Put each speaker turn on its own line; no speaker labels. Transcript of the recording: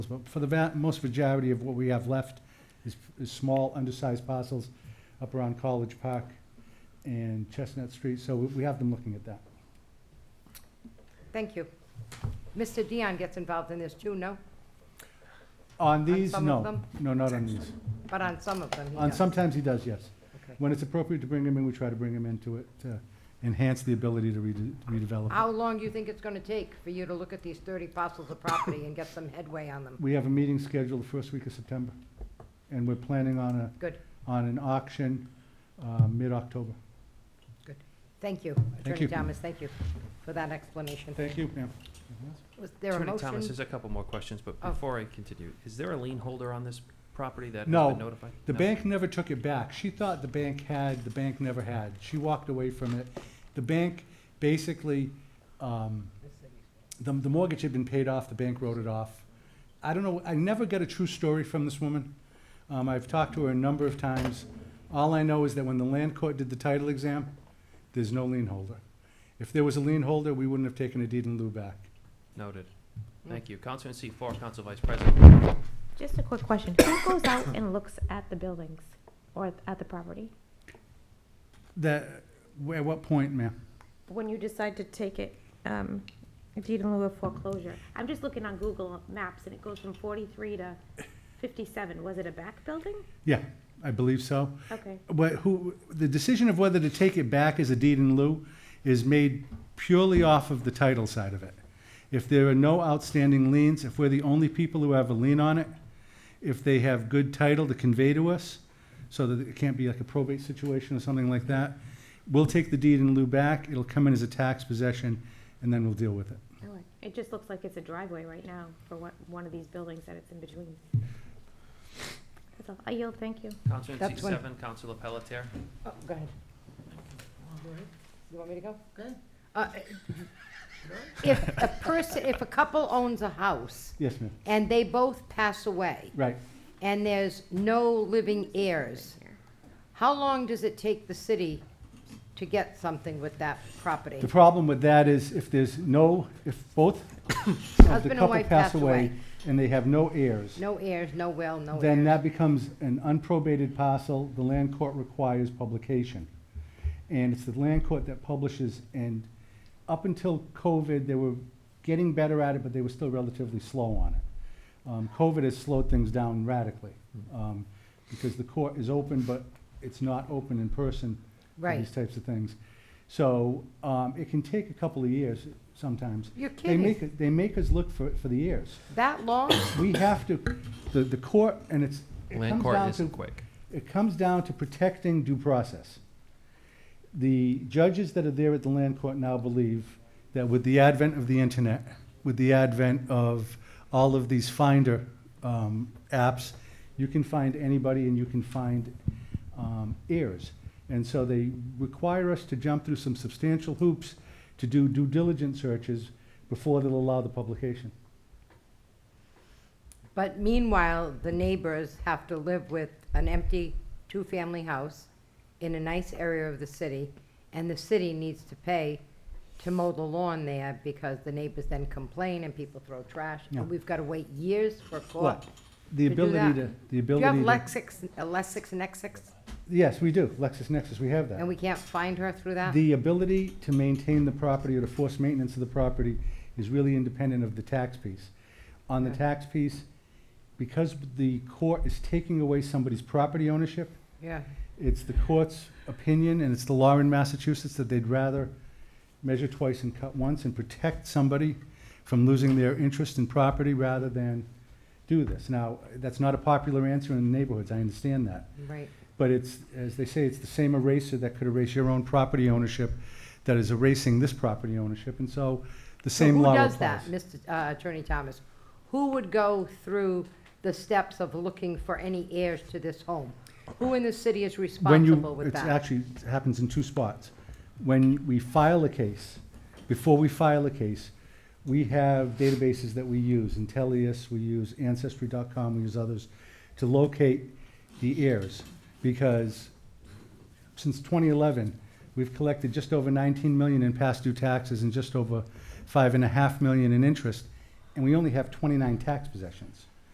But for the va- most majority of what we have left is, is small, undersized parcels up around College Park and Chestnut Street, so we we have them looking at that.
Thank you. Mr. Dion gets involved in this too, no?
On these,
some
no,
of them?
no, not on these.
But on some of them, he
On
does.
sometimes he does, yes.
Okay.
When it's appropriate to bring him in, we try to bring him into it to enhance the ability to rede- redevelop.
How long do you think it's going to take for you to look at these 30 parcels of property and get some headway on them?
We have a meeting scheduled the first week of September, and we're planning on a,
Good,
on an auction, uh, mid-October.
thank you.
you.
Attorney Thomas, thank you for that explanation.
Thank you, ma'am.
Was there a
Attorney Thomas,
motion?
there's a couple more questions, but
Oh.
before I continue, is there a lien holder on this property that has
No.
been notified?
The
No.
bank never took it back. She thought the bank had, the bank never had. She walked away from it. The bank basically, um, the, the mortgage had been paid off, the bank wrote it off. I don't know, I never got a true story from this woman. Um, I've talked to her a number of times. All I know is that when the land court did the title exam, there's no lien holder. If there was a lien holder, we wouldn't have taken a deed in lieu back.
Noted.
Mm.
Thank you. Counselor in seat four, Counsel Vice President.
Just a quick question. Who goes out and looks at the buildings or at- at the property?
That, at what point, ma'am?
When you decide to take it, um, deed in lieu of foreclosure? I'm just looking on Google Maps and it goes from forty-three to fifty-seven. Was it a back building?
Yeah, I believe so.
Okay,
what, who, the decision of whether to take it back as a deed in lieu is made purely off of the title side of it. If there are no outstanding liens, if we're the only people who have a lien on it, if they have good title to convey to us, so that it can't be like a probate situation or something like that, we'll take the deed in lieu back, it'll come in as a tax possession, and then we'll deal with it.
I like- it just looks like it's a driveway right now for one, one of these buildings that it's in between. That's all. I yield, thank you.
Counselor in seat
That's when-
seven, Counselor Pelletier.
Oh, go ahead. You want me to go? Good. If a person, if a couple owns a house
Yes, ma'am.
and they both pass away
Right.
and there's no living heirs, How long does it take the city to get something with that property?
The problem with that is if there's no, if both of
Husband
the
and
couple
wife
pass
passed away.
away and they have no heirs,
No heirs, no will, no
then
heirs.
that becomes an unprobated parcel. The land court requires publication. And it's the land court that publishes, and up until COVID, they were getting better at it, but they were still relatively slow on it. Um, COVID has slowed things down radically, um, because the court is open, but it's not open in person for
Right.
these types of things. So, um, it can take a couple of years sometimes.
You're
They make,
kidding.
it- they make us look for, for the heirs
That long?
we have to, the, the court, and it's, it
Land
comes
court
down
isn't
to,
quick.
it comes down to protecting due process. The judges that are there at the land court now believe that with the advent of the internet, with the advent of all of these finder, um, apps, you can find anybody and you can find, um, heirs. And so they require us to jump through some substantial hoops to do due diligence searches before they'll allow the publication.
But meanwhile, the neighbors have to live with an empty two-family house in a nice area of the city, and the city needs to pay to mow the lawn there because the neighbors then complain and people throw trash.
Yeah.
And we've got to wait years for a court.
Well, the
to do
ability
that.
to, the
Do you have
ability to.
Lexix, uh, Lexix and Exix,
Yes, we do, LexisNexis, we have
and
that.
we can't find her through that?
The ability to maintain the property or to force maintenance of the property is really independent of the tax piece. On the
Okay.
tax piece, because the court is taking away somebody's property ownership,
Yeah.
it's the court's opinion, and it's the law in Massachusetts, that they'd rather measure twice and cut once and protect somebody from losing their interest in property rather than do this. Now, that's not a popular answer in neighborhoods, I understand that.
Right.
But it's, as they say, it's the same eraser that could erase your own property ownership that is erasing this property ownership, and so the
So
same law applies.
Who does that, Mr. uh, Attorney Thomas? Who would go through the steps of looking for any heirs to this home? Who in the city is
When you-
responsible with
it's
that?
actually, it happens in two spots. When we file a case, before we file a case, we have databases that we use, Intellius, we use Ancestry.com, we use others, to locate the heirs, because since 2011, we've collected just over 19 million in past due taxes and just over five and a half million in interest, and we only have 29 tax possessions.